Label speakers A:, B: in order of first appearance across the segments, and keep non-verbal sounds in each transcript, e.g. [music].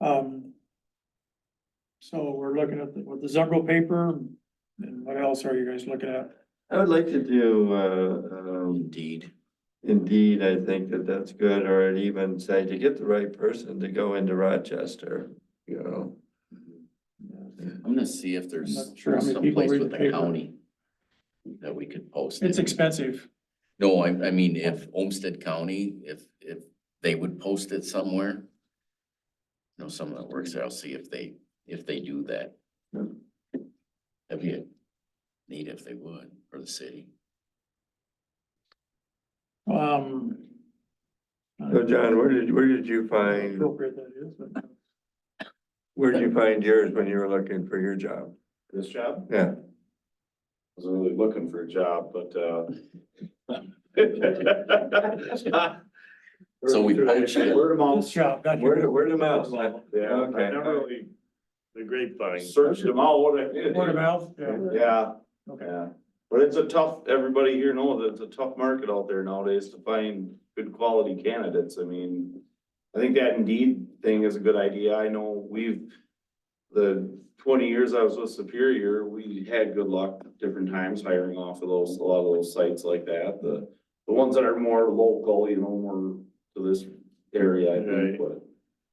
A: Um. So we're looking at the, with the Zumbo paper, and what else are you guys looking at?
B: I would like to do, uh, um,
C: Indeed.
B: indeed, I think that that's good, or I'd even say to get the right person to go into Rochester, you know?
C: I'm gonna see if there's
A: I'm not sure how many people
C: someplace
A: read
C: with
A: the
C: the
A: paper.
C: county that we could post.
A: It's
C: it.
A: expensive.
C: No, I, I mean, if Olmsted County, if, if they would post it somewhere. You know, someone that works there, I'll see if they, if they do that.
B: Yeah.
C: That'd be a need if they would, or the city.
A: Um.
B: So John, where did, where did you find,
A: Appropriate that is, but-
B: where did you find yours when you were looking for your job?
D: This job,
B: Yeah,
D: wasn't really looking for a job, but, uh.
C: [laughs] So we poached it.
D: Word of
A: This
D: mouth.
A: job, got
B: word,
A: you.
B: word of mouth.
D: Yeah, I
B: Okay.
D: never really. The grapevine. Searched them all, what I did.
A: Word of mouth, yeah.
D: Yeah,
A: Okay.
D: yeah. But it's a tough, everybody here knows it's a tough market out there nowadays to find good quality candidates. I mean, I think that Indeed thing is a good idea. I know we've, the twenty years I was with Superior, we had good luck different times hiring off of those, a lot of those sites like that. The, the ones that are more local, you know, more to this area, I think, but,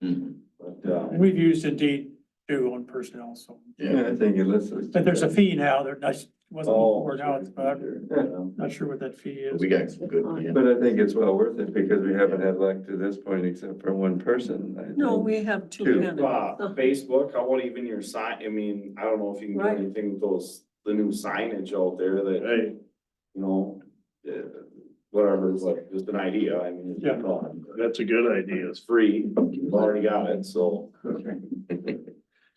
E: Hmm.
C: Mhm.
D: but, um,
A: And We've used Indeed too on personnel, so,
B: Yeah, I think it lists.
A: but there's a fee now, there, that's, wasn't
D: Oh,
A: before now, it's, but I'm
D: [laughs] yeah.
A: not sure what that fee is.
C: We got some good, yeah.
B: But I think it's well worth it because we haven't had luck to this point except for one person. I
E: No,
B: think.
E: we have two
B: Two.
E: candidates.
D: Uh,
E: Uh-huh.
D: Facebook, how about even your sign, I mean, I don't know if you can do
E: Right.
D: anything with those, the new signage out there that, you know, uh, whatever, it's like, just an idea, I mean. it's
A: Yeah.
D: gone.
F: That's a good idea.
D: It's free, you've already got it, so.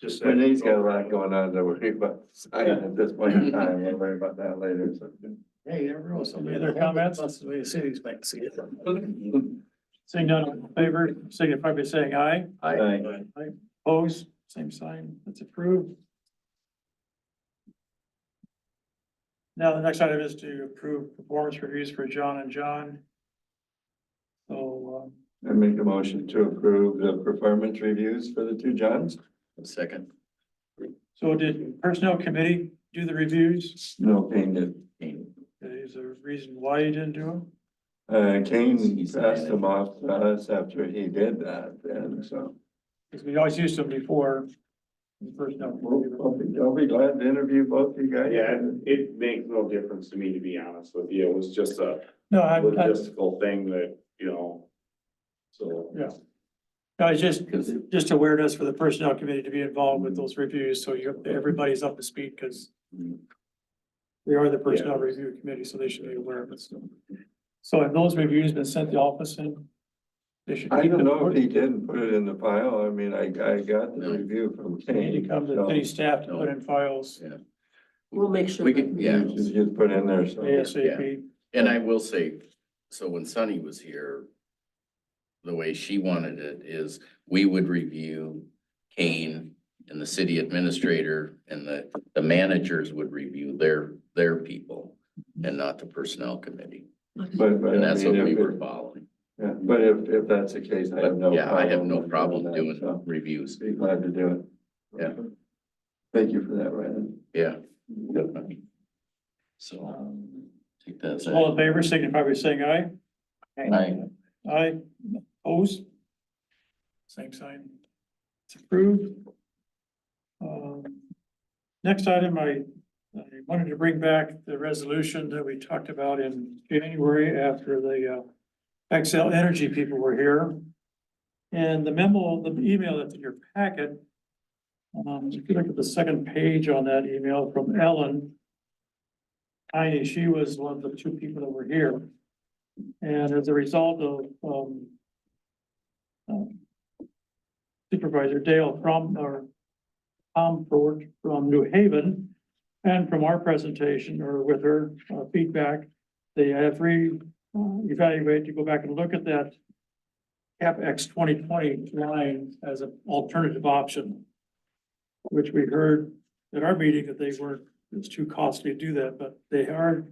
F: Just that-
B: Renee's got a lot going on to worry about sign at this point in time. We'll worry about that later. so.
C: Hey, there was
A: Any other comments?
C: That's the way the city's back to see it.
A: Seeing none in favor, signify by saying aye.
C: I,
A: Opposed, same sign, that's approved. Now, the next item is to approve performance reviews for John and John. So, um,
B: I make a motion to approve the performance reviews for the two Johns?
C: second,
A: so did personnel committee do the reviews?
B: No, Kane did.
A: Is there a reason why you didn't do them?
B: Uh, Kane
C: He's the
B: passed them
C: manager.
B: off to us after he did that and so.
A: Because we always used them before. in personnel
B: We'll,
A: committee.
B: I'll be, I'll be glad to interview both you guys.
D: Yeah, it makes no difference to me, to be honest with you, it was just a
A: No, I, I,
D: logistical thing that, you know, so.
A: Yeah. I was just,
C: because
A: just awareness for the personnel committee to be involved with those reviews, so you, everybody's up to speed, because they are the personnel review committee, so they should be aware of it. so. So have those reviews been sent to the office and? They should.
B: I
A: keep
B: don't
A: them.
B: know if he didn't put it in the file. I mean, I, I got the
C: No.
B: review from
A: They Need to
B: Kane.
A: come to the
B: so-
A: city staff to put in files
E: We'll make sure.
C: we
E: that-
C: could, yeah.
B: You Just just put in there, so.
A: ASAP.
C: And I will say, so when Sunny was here, the way she wanted it is we would review Kane and the city administrator and the, the managers would review their, their people and not the personnel committee.
B: But, but.
C: And
B: I
C: that's what
B: mean,
C: we
B: if
C: were
B: it-
C: following.
B: Yeah, but if, if that's the case, I have
C: But
B: no.
C: yeah, I have no
B: with
C: problem
B: that,
C: doing
B: so
C: reviews.
B: Be glad to do it.
C: Yeah.
B: Thank you for that, Ryan.
C: Yeah. So
A: Um,
C: take that. as a-
A: All in favor, signify by saying aye.
C: Aye.
A: Aye, opposed? Same sign. It's approved. Um, Next item, I, I wanted to bring back the resolution that we talked about in January after the uh, Excel Energy people were here. And the memo, the email that's in your packet, um, if you look at the second page on that email from Ellen, Heine, she was one of the two people that were here. And as a result of, um, um, Supervisor Dale from, or Tom Ford from New Haven, and from our presentation or with her uh, feedback, they have re, uh, evaluated to go back and look at that CapEx twenty twenty line as an alternative option, which we heard at our meeting that they weren't, it's too costly to do that, but they are